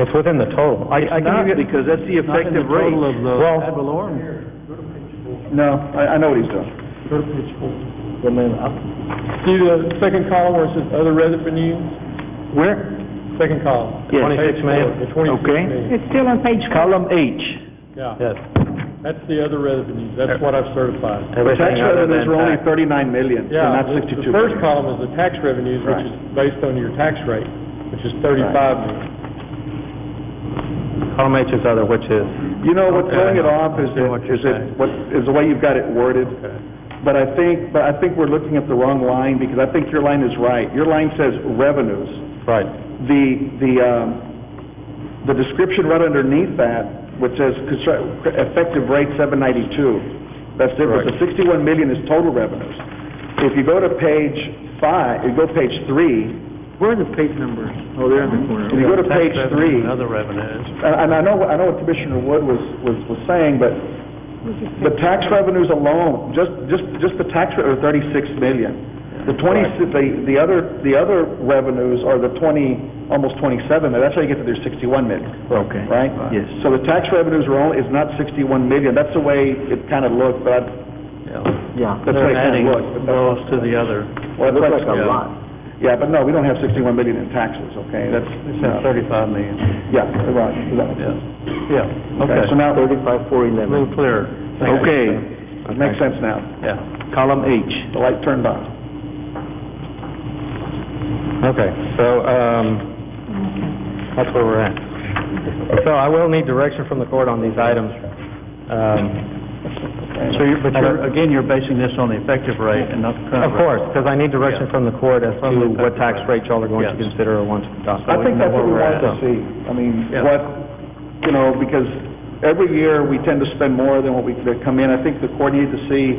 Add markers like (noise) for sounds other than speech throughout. It's within the total. I, I It's can not, give you, because that's the Not in the effective rate. total of the Well- ad valorem. No, I, I know what he's doing. Go to page four. See the second column where it says other revenues? Where? Second column. Yes. Oh. Twenty-six Page million. four, The twenty-six Okay. million. It's still on page four. Column H. Yeah, yes, that's the other revenues, that's what I've certified. The tax everything other revenues than were only tax. thirty-nine million, and Yeah, not the- sixty-two The first million. column is the tax revenues, which Right. is based on your tax rate, which is thirty-five million. Column H is other, which is, You know, what's Okay, throwing it I off is understand it, what you're is it, saying. what, is the way you've got it worded. But I think, but I think we're looking at the wrong line, because I think your line is right. Your line says revenues. right, The, the, um, the description right underneath that, which says constru- effective rate seven ninety-two, that's different. The sixty-one million is total revenues. If you go to page five, you go to page three, Where are the page numbers? Oh, they're in the corner. if you go to page three, other revenues. Uh, And and I know, I know what Commissioner Wood was, was, was saying, but the tax revenues alone, just, just, just the tax rate are thirty-six million. The twenty, the, the other, the other revenues are the twenty, almost twenty-seven, million. that's how you get to their sixty-one million, Okay. right? Yes. So the tax revenues are only, is not sixty-one million, that's the way it kind of looked, but, I- Yeah. that's the way it kind of looked. but that's- to the other. well, that's Looks like a what- lot. Yeah, but no, we don't have sixty-one million in taxes, okay, that's, no. Thirty-five million, yeah, right, exactly. yeah, okay. Okay, so now, Thirty-five, four, A eleven. little clearer. okay, makes sense now. Yeah, Column H. The light turned on. okay, so, um, that's where we're at. So I will need direction from the court on these items. Um, So you're, but I you're, don't- again, you're basing this on the effective rate and not the current Of rate. course, because I need direction from the court as From the to what tax tax rate y'all are going to Yes. consider or want to adopt. I think that's what we wanted to see. I mean, what, you know, because every year, we tend to spend more than what we that come in. I think the court needed to see,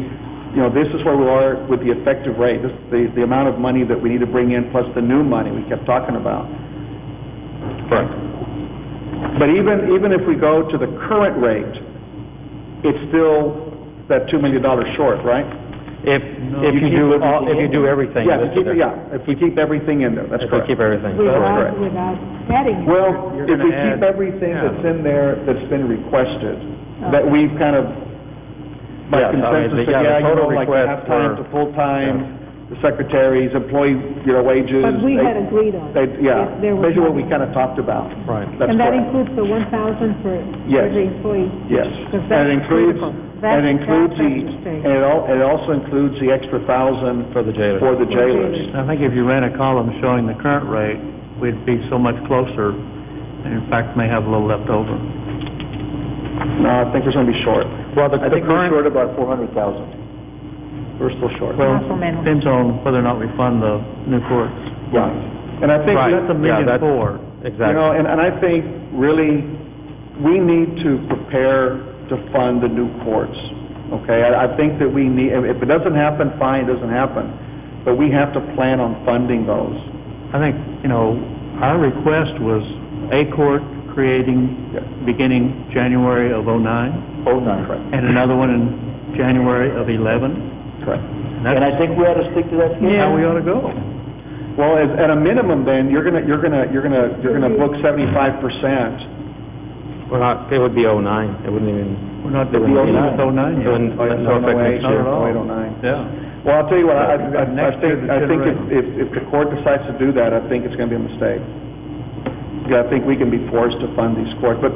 you know, this is where we are with the effective rate, this, the, the amount of money that we need to bring in, plus the new money we kept talking about. Correct. But even, even if we go to the current rate, it's still that $2 million short, right? If, if you keep do everything all, if you do everything. Yeah, if listed we keep, there. yeah, if we keep everything in there, that's If we correct. keep everything. correct. Without, without adding. Well, You're if we gonna add- keep everything yeah. that's in there that's been requested, Oh. that we've kind of, Yeah, by I mean, consensus, the- said, yeah, the yeah, you total know, like requests half-time were- to full-time, the secretaries, employee, you know, wages. But we they- had agreed on they- it. Yeah, If there was basically what we money. kind of talked about. Right. That's And that correct. includes the one thousand for Yes. every employee. Yes. And it Because that's includes, critical. and That's- it includes that's the, a mistake. and it al, and it also includes the extra thousand For the jailer. for the jailers. jailers. I think if you ran a column showing the current rate, we'd be so much closer, and in fact, may have a little left over. No, I think we're going to be short. Well, the I the think we're current, short about four hundred thousand. We're still short. Supplemental. Depends on whether or not we fund the new courts. Yeah, and I think, Right. That's a Yeah, million that's- four. you exactly. know, and, and I think really, we need to prepare to fund the new courts, okay? I, I think that we need, if if it doesn't happen, fine, it doesn't happen, but we have to plan on funding those. I think, you know, our request was a court Yeah. creating, beginning January of '09, Oh, nine. Correct, and another one in January of '11. correct. And I think we ought to stick to that schedule. How we ought to go. Well, as, at a minimum then, you're gonna, you're gonna, you're gonna, you're gonna book seventy-five percent. We're not, it would be oh nine, it wouldn't even, We're not It doing wouldn't it be- with '09 it yet. wouldn't, no effect next Not year. at all. Yeah. Well, I'll tell you what, I, I, I I Next year, think, the I think if, general. if, if the court decides to do that, I think it's gonna be a mistake. Yeah, I think we can be forced to fund these courts, but,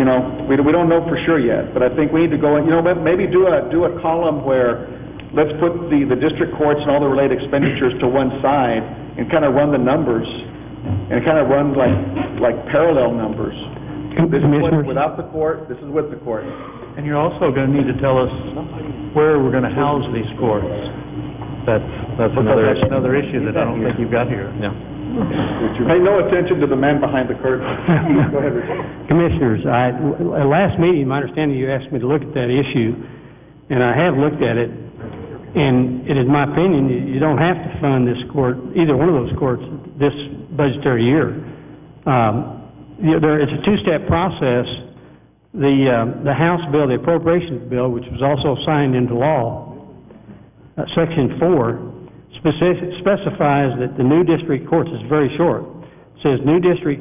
you know, we, we don't know for sure yet, but I think we need to go, in- you know, may- maybe do a, do a column where, let's put the, the district courts and all the related expenditures to one side, and kind of run the numbers, and kind of run like, like parallel numbers. This is what, without the court, this is with the court. And you're also going to need to tell us where we're going to house these courts. That's, that's Because another that's issue. another issue that I don't think you've got here. Yeah. Pay no attention to the man behind the (laughs) curtain. Go ahead, Richard. Commissioners, I, at last meeting, my understanding, you asked me to look at that issue, and I have looked at it, and it is my opinion, you you don't have to fund this court, either one of those courts, this budgetary year. Um, you know, there, it's a two-step process. The, um, the House bill, the appropriations bill, which was also signed into law, uh, Section 4 specif- specifies that the new district courts is very short. Says new district